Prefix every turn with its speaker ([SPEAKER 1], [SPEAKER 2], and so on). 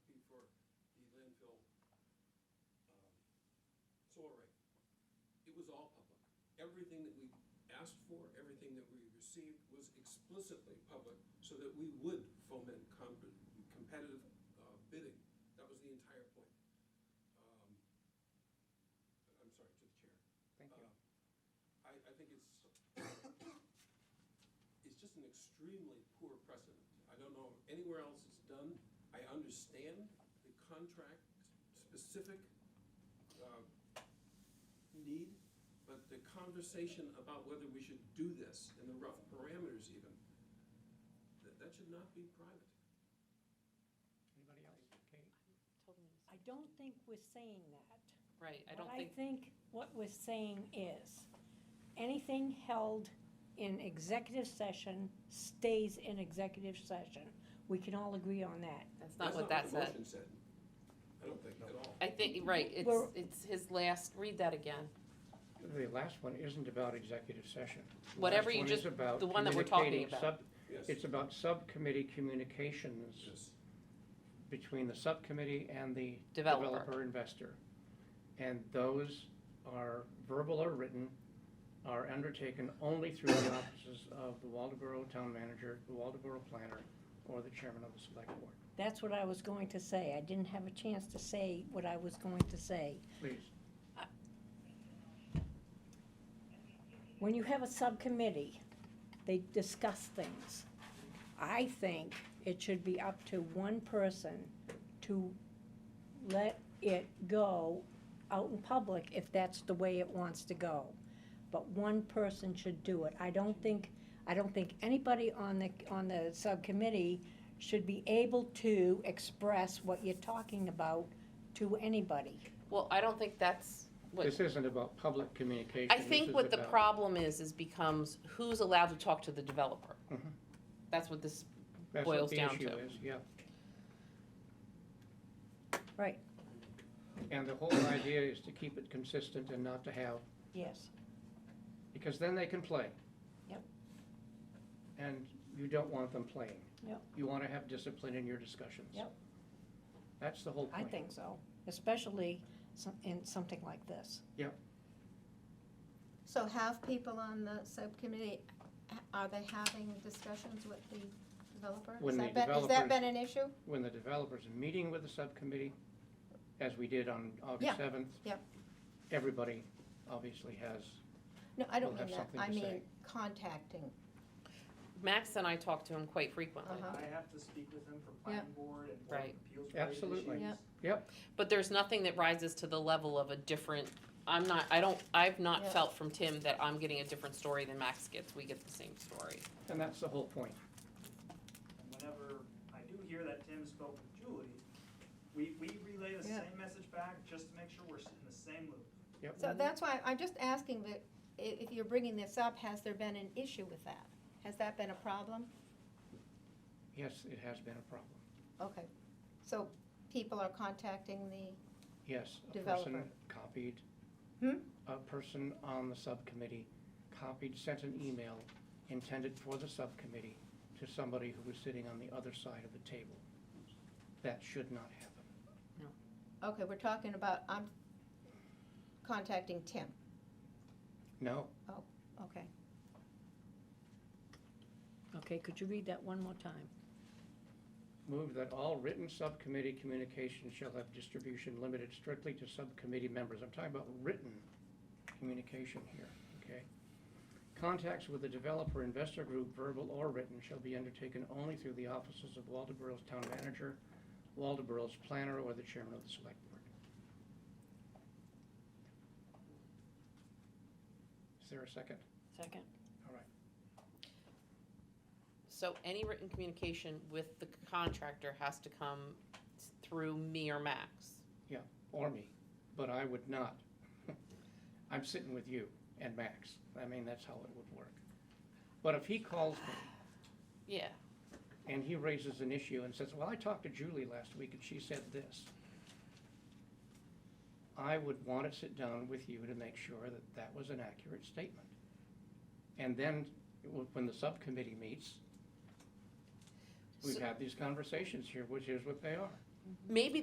[SPEAKER 1] um, everything that we asked for, everything that we received was explicitly public, so that we would foment com- competitive uh, bidding. That was the entire point. Um, I'm sorry, to the chair.
[SPEAKER 2] Thank you.
[SPEAKER 1] Uh, I, I think it's, it's just an extremely poor precedent. I don't know anywhere else it's done. I understand the contract-specific uh, need, but the conversation about whether we should do this and the rough parameters even, that, that should not be private.
[SPEAKER 2] Anybody else? Kate?
[SPEAKER 3] Totally.
[SPEAKER 4] I don't think we're saying that.
[SPEAKER 3] Right, I don't
[SPEAKER 4] What I
[SPEAKER 3] think,
[SPEAKER 4] think what we're saying is, anything held in executive session stays in executive session. We can all agree on that.
[SPEAKER 3] that's not what that
[SPEAKER 1] That's not what the
[SPEAKER 3] said.
[SPEAKER 1] motion said. I don't think at all.
[SPEAKER 3] I think, right, it's,
[SPEAKER 4] We're-
[SPEAKER 3] it's his last, read that again.
[SPEAKER 2] The last one isn't about executive session. The
[SPEAKER 3] Whatever
[SPEAKER 2] last
[SPEAKER 3] you
[SPEAKER 2] one
[SPEAKER 3] just-
[SPEAKER 2] is about
[SPEAKER 3] the one that we're talking
[SPEAKER 2] communicating
[SPEAKER 3] about.
[SPEAKER 2] sub-
[SPEAKER 1] Yes.
[SPEAKER 2] It's about subcommittee communications
[SPEAKER 1] Yes.
[SPEAKER 2] between the subcommittee and the
[SPEAKER 3] Developer.
[SPEAKER 2] developer investor. And those are verbal or written, are undertaken only through the offices of the Waldeboro town manager, the Waldeboro planner, or the chairman of the select board.
[SPEAKER 4] That's what I was going to say. I didn't have a chance to say what I was going to say.
[SPEAKER 2] Please.
[SPEAKER 4] When you have a subcommittee, they discuss things. I think it should be up to one person to let it go out in public if that's the way it wants to go. But one person should do it. I don't think, I don't think anybody on the, on the subcommittee should be able to express what you're talking about to anybody.
[SPEAKER 3] Well, I don't think that's
[SPEAKER 2] This
[SPEAKER 3] what,
[SPEAKER 2] isn't about public communication.
[SPEAKER 3] I
[SPEAKER 2] This
[SPEAKER 3] think
[SPEAKER 2] is
[SPEAKER 3] what the
[SPEAKER 2] about-
[SPEAKER 3] problem is, is becomes who's allowed to talk to the developer.
[SPEAKER 2] Mhm.
[SPEAKER 3] That's what this,
[SPEAKER 2] That's what
[SPEAKER 3] boils
[SPEAKER 2] the
[SPEAKER 3] down
[SPEAKER 2] issue
[SPEAKER 3] to.
[SPEAKER 2] is, Yeah.
[SPEAKER 4] Right,
[SPEAKER 2] And the whole idea is to keep it consistent and not to have,
[SPEAKER 4] yes.
[SPEAKER 2] because then they can play.
[SPEAKER 4] Yep.
[SPEAKER 2] And you don't want them playing.
[SPEAKER 4] Yep.
[SPEAKER 2] You want to have discipline in your discussions.
[SPEAKER 4] Yep.
[SPEAKER 2] That's the whole
[SPEAKER 4] I
[SPEAKER 2] point.
[SPEAKER 4] think so, especially some- in something like this.
[SPEAKER 2] Yep.
[SPEAKER 5] So have people on the subcommittee, are they having discussions with the developer? Has
[SPEAKER 2] When the
[SPEAKER 5] that been- Has that
[SPEAKER 2] developers-
[SPEAKER 5] been an issue?
[SPEAKER 2] When the developers are meeting with the subcommittee, as we did on
[SPEAKER 5] Yeah,
[SPEAKER 2] August 7th.
[SPEAKER 5] yeah.
[SPEAKER 2] Everybody obviously has,
[SPEAKER 5] No, I don't
[SPEAKER 2] We'll have
[SPEAKER 5] mean that.
[SPEAKER 2] something
[SPEAKER 5] I
[SPEAKER 2] to say.
[SPEAKER 5] mean contacting.
[SPEAKER 3] Max and I talk to him quite frequently.
[SPEAKER 5] Uh-huh.
[SPEAKER 6] I have to speak with them for planning board and board
[SPEAKER 3] Right.
[SPEAKER 6] of appeals related issues.
[SPEAKER 2] Absolutely.
[SPEAKER 5] Yep.
[SPEAKER 2] yep,
[SPEAKER 3] But there's nothing that rises to the level of a different, I'm not, I don't, I've not
[SPEAKER 5] Yeah.
[SPEAKER 3] felt from Tim that I'm getting a different story than Max gets. We get the same story.
[SPEAKER 2] and that's the whole point.
[SPEAKER 6] And Whenever I do hear that Tim spoke with Julie, we, we relay the
[SPEAKER 5] Yeah.
[SPEAKER 6] same message back just to make sure we're in the same loop.
[SPEAKER 2] Yep.
[SPEAKER 5] So that's why, I'm just asking that, i- if you're bringing this up, has there been an issue with that? Has that been a problem?
[SPEAKER 2] Yes, it has been a problem.
[SPEAKER 5] Okay, so people are contacting the,
[SPEAKER 2] Yes, a
[SPEAKER 5] Developer.
[SPEAKER 2] person copied.
[SPEAKER 5] Hmm?
[SPEAKER 2] A person on the subcommittee copied, sent an email intended for the subcommittee to somebody who was sitting on the other side of the table. That should not happen.
[SPEAKER 5] okay, we're talking about, I'm contacting Tim.
[SPEAKER 2] No,
[SPEAKER 5] Oh, okay.
[SPEAKER 4] Okay, could you read that one more time?
[SPEAKER 2] move that all written subcommittee communications shall have distribution limited strictly to subcommittee members. I'm talking about written communication here, okay? Contacts with the developer investor group, verbal or written, shall be undertaken only through the offices of Waldeboro's town manager, Waldeboro's planner, or the chairman of the select board. Is there a second?
[SPEAKER 4] Second.
[SPEAKER 2] All right.
[SPEAKER 3] So any written communication with the contractor has to come s- through me or Max.
[SPEAKER 2] Yeah, or me, but I would not. I'm sitting with you and Max. I mean, that's how it would work. But if he calls me
[SPEAKER 3] Yeah,
[SPEAKER 2] and he raises an issue and says, well, I talked to Julie last week and she said this, I would want to sit down with you to make sure that that was an accurate statement. And then, w- when the subcommittee meets, we've
[SPEAKER 3] So-
[SPEAKER 2] had these conversations here, which is what they are.
[SPEAKER 3] maybe